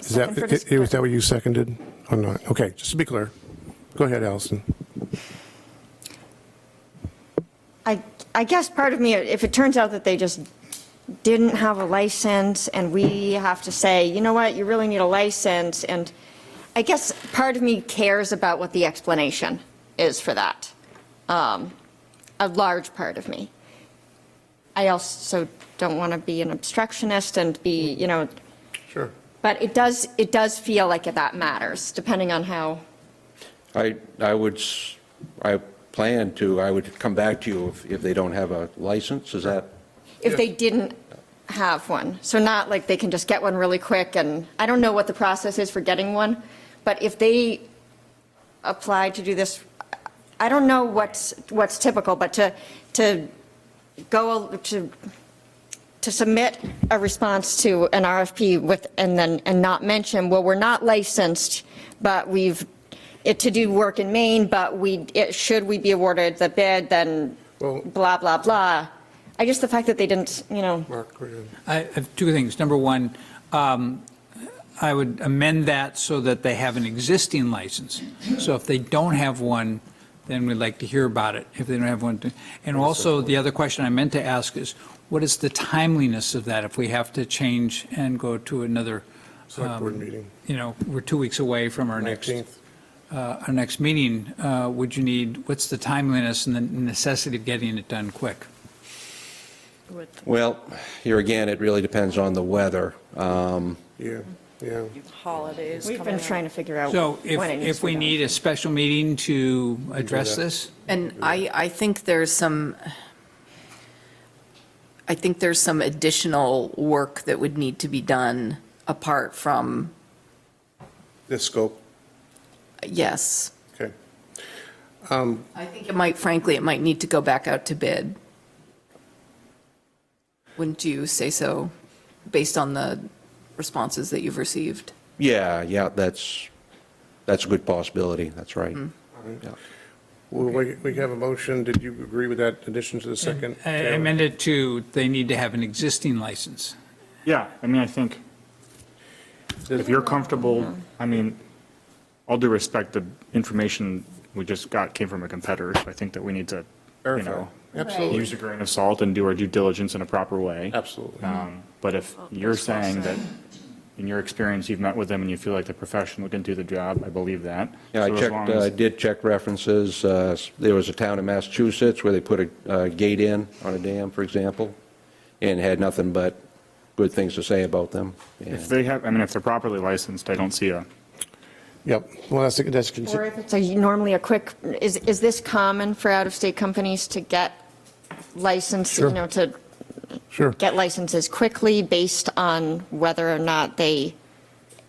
Is Second that, for i- i- was discussion. that what you seconded or not? Okay, just to be clear. Go ahead, Allison. I, I guess part of me, if it turns out that they just didn't have a license and we have to say, you know what, you really need a license, and I guess part of me cares about what the explanation is for that. Um, A large part of me. I also don't want to be an obstructionist and be, you know, Sure. but it does, it does feel like that matters, depending on how, I, I would, s- I plan to, I would come back to you if, if they don't have a license, is that? if they didn't have one. So not like they can just get one really quick, and I don't know what the process is for getting one, but if they apply to do this, I don't know what's, what's typical, but to, to go, to, to submit a response to an RFP with, and then, and not mention, well, we're not licensed, but we've, it to do work in Maine, but we, it, should we be awarded the bid, then Well- blah, blah, blah. I just, the fact that they didn't, you know, Mark, go ahead. I have two things. Number one, um, I would amend that so that they have an existing license. So if they don't have one, then we'd like to hear about it, if they don't have one. to- And also, the other question I meant to ask is, what is the timeliness of that if we have to change and go to another, Select board meeting, you know, we're two weeks away from our Um, next, 19th. uh, our next meeting, uh, would you need, what's the timeliness and the necessity of getting it done quick? Well, here again, it really depends on the weather. Um, Yeah, yeah. holidays we've been trying to figure out. So if, Oh, when it needs if to be we done. need a special meeting to address that. this? And I, I think there's some, I think there's some additional work that would need to be done apart from, The scope, yes. okay. I think it might, frankly, it might need to go back out to bid. Wouldn't you say so, based on the responses that you've received? Yeah, yeah, that's, that's a good possibility, that's right. Yeah. Well, we we have a motion. Did you agree with that addition to the second? I Taylor? amended to, they need to have an existing license. Yeah, I mean, I think if you're comfortable, I mean, all due respect, the information we just got came from a competitor, so I think that we need to, you Verify. know, Absolutely, use a grain of salt and do our due diligence in a proper way. absolutely. Um, But if you're saying that, in your experience, you've met with them and you feel like the professional can do the job, I believe that. Yeah, I So as checked, long uh, as- did check references. uh, There was a town in Massachusetts where they put a uh, gate in on a dam, for example, and had nothing but good things to say about them. If And they have, I mean, if they're properly licensed, I don't see a, Yep, well, that's, that's, consi- Or if it's a- normally a quick, is, is this common for out-of-state companies to get license, you Sure. know, to sure. get licenses quickly based on whether or not they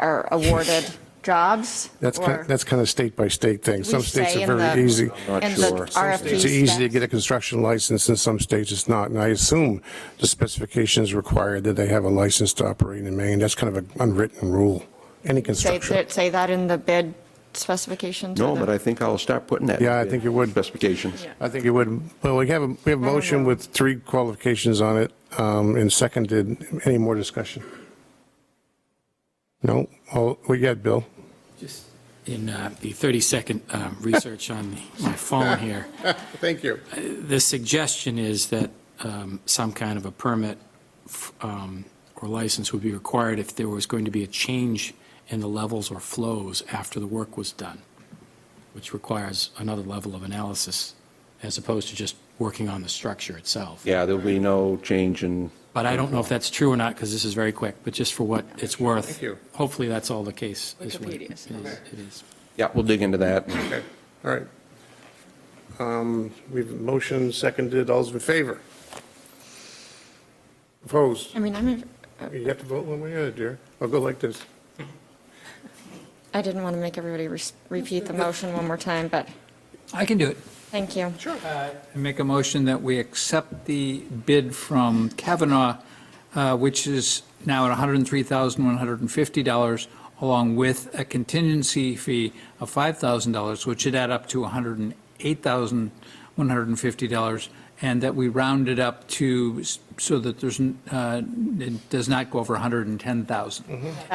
are awarded jobs? That's kind, Or that's kind of state by state thing. we Some states say are in very the- easy. Not in the sure. Some RFP It's easy to specs. get a construction license, in some states it's not. And I assume the specifications require that they have a license to operate in Maine. That's kind of an unwritten rule, any Say, construction. that- say that in the bid specifications? or No, the- but I think I'll start putting that. in Yeah, I the think you would. Specifications. I think it would, well, we have, a we have a motion with three qualifications on it um, and seconded. Any more discussion? No? All, we got Bill? Just in uh, the 30-second research on my phone here, Uh, Thank you. the suggestion is that um, some kind of a permit f- um, or license would be required if there was going to be a change in the levels or flows after the work was done, which requires another level of analysis as opposed to just working on the structure itself. Yeah, there'll be no change in, But I don't know if that's true or not, because this is very quick, but just for what it's worth. Thank you. Hopefully, that's all the case. is what It Wikipedia, is- it is. yeah, we'll dig into that. Okay, all right. Um, We've motion seconded, all's in favor? Opposed? I mean, I'm, You have to vote one way or the other, dear. I'll go like this. I didn't want to make everybody re- repeat the motion one more time, but I can do it. thank you. Sure. Uh, I make a motion that we accept the bid from Kavanaugh, uh, which is now at $103,150, along with a contingency fee of $5,000, which should add up to $108,150, and that we round it up to, so that there's, n- uh, it does not go over $110,000.